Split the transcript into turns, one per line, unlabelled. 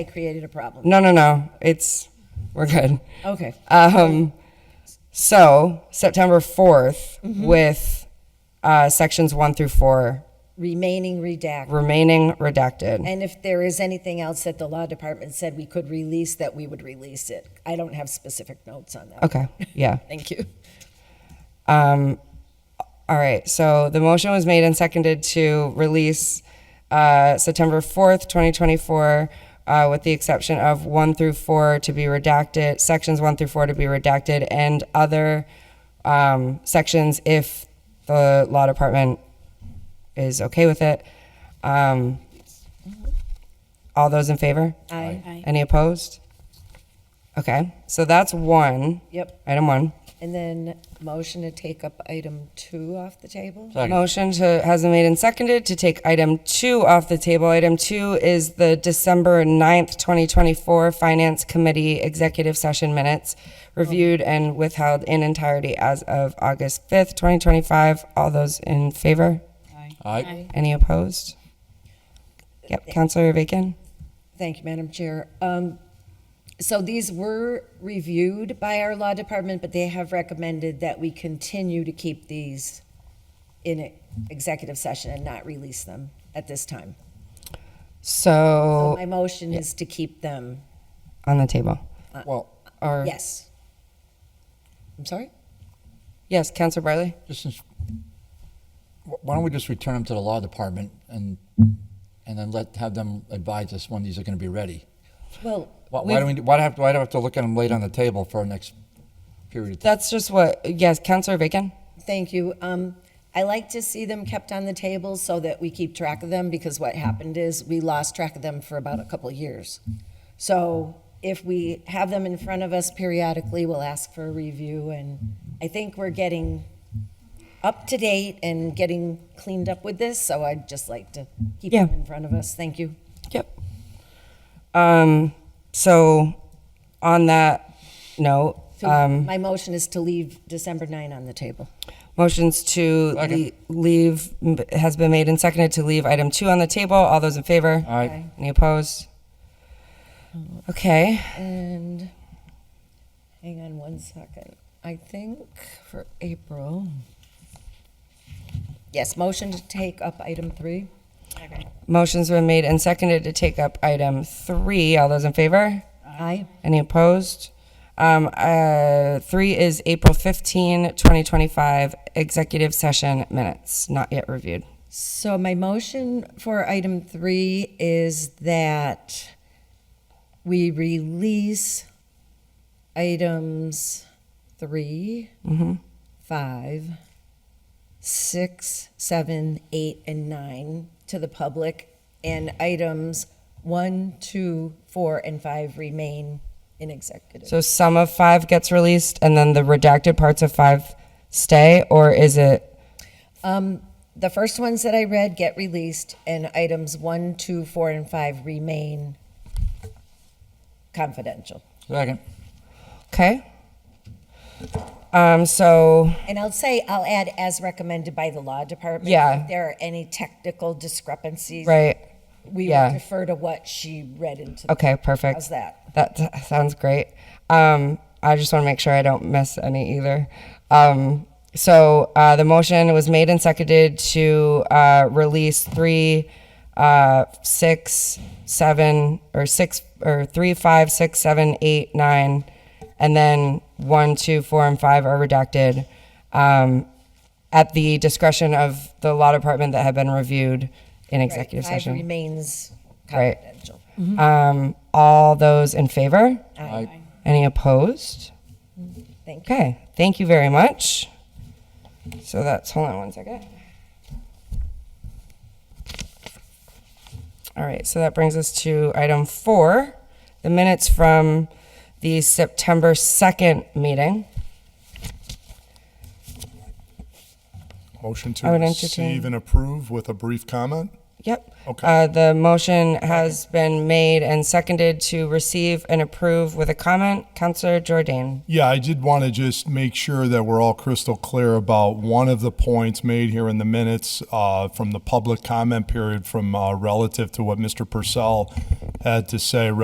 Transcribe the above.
I created a problem.
No, no, no. It's we're good.
Okay.
Um, so September 4th with uh, sections one through four
Remaining redacted.
remaining redacted.
And if there is anything else that the law department said we could release, that we would release it. I don't have specific notes on that.
Okay. Yeah.
Thank you.
Um, all right. So the motion was made and seconded to release uh, September 4th, 2024, uh, with the exception of 1 through 4 to be redacted, sections 1 through 4 to be redacted, and other um, sections if the law department is okay with it. Um, all those in favor?
Aye.
Any opposed? Okay. So that's one.
Yep.
Item one.
And then motion to take up item two off the table?
Motion to, has been made and seconded to take item two off the table. Item two is the December 9th, 2024 Finance Committee Executive Session Minutes, reviewed and withheld in entirety as of August 5th, 2025. All those in favor?
Aye.
Any opposed? Yep, Counselor Bacon?
Thank you, Madam Chair. Um, So these were reviewed by our law department, but they have recommended that we continue to keep these in executive session and not release them at this time. So
So,
my motion is to keep them,
on the table.
Well,
Or,
yes. I'm sorry?
yes, Counselor Bartley?
just since, wh- why don't we just return them to the law department and, and then let, have them advise us when these are going to be ready?
Well,
Why, why do we, why do I have, why do I have to look at them late on the table for our next period of time?
That's just what, yes, Counselor Bacon?
thank you. Um, I like to see them kept on the table so that we keep track of them, because what happened is we lost track of them for about a couple of years. So if we have them in front of us periodically, we'll ask for a review, and I think we're getting up to date and getting cleaned up with this, so I'd just like to keep them
Yeah.
in front of us. Thank you.
Yep. Um, so on that note,
So
um,
my motion is to leave December 9 on the table.
motions to le- leave has been made and seconded to leave item two on the table. All those in favor?
Aye.
Any opposed? Okay.
And hang on one second. I think for April. Yes, motion to take up item three.
Motions been made and seconded to take up item three. All those in favor?
Aye.
Any opposed? Um, uh, three is April 15, 2025, executive session minutes, not yet reviewed.
So my motion for item three is that we release items 3 five, six, seven, eight, and nine to the public, and items one, two, four, and five remain in executive.
So some of five gets released, and then the redacted parts of five stay, or is it?
Um, the first ones that I read get released, and items one, two, four, and five remain confidential.
Second.
Okay. Um, so,
And I'll say, I'll add as recommended by the law department.
Yeah.
If there are any technical discrepancies.
right.
We
yeah.
would refer to what she read into. the-
Okay, perfect.
How's that?
That t- sounds great. Um, I just want to make sure I don't miss any either. Um, so uh, the motion was made and seconded to uh, release three, uh, six, seven, or six, or three, five, six, seven, eight, nine, and then one, two, four, and five are redacted um, at the discretion of the law department that have been reviewed in executive
Five
session.
remains
Right.
confidential.
Um, all those in favor?
Aye.
Any opposed?
Thank you.
Okay, thank you very much. So that's, hold on one second. All right, so that brings us to item four, the minutes from the September 2nd meeting.
Motion
I
to
would entertain-
receive and approve with a brief comment?
Yep.
Okay.
Uh, The motion has been made and seconded to receive and approve with a comment. Counselor Jordan.
Yeah, I did want to just make sure that we're all crystal clear about one of the points made here in the minutes uh, from the public comment period from uh, relative to what Mr. Purcell had to say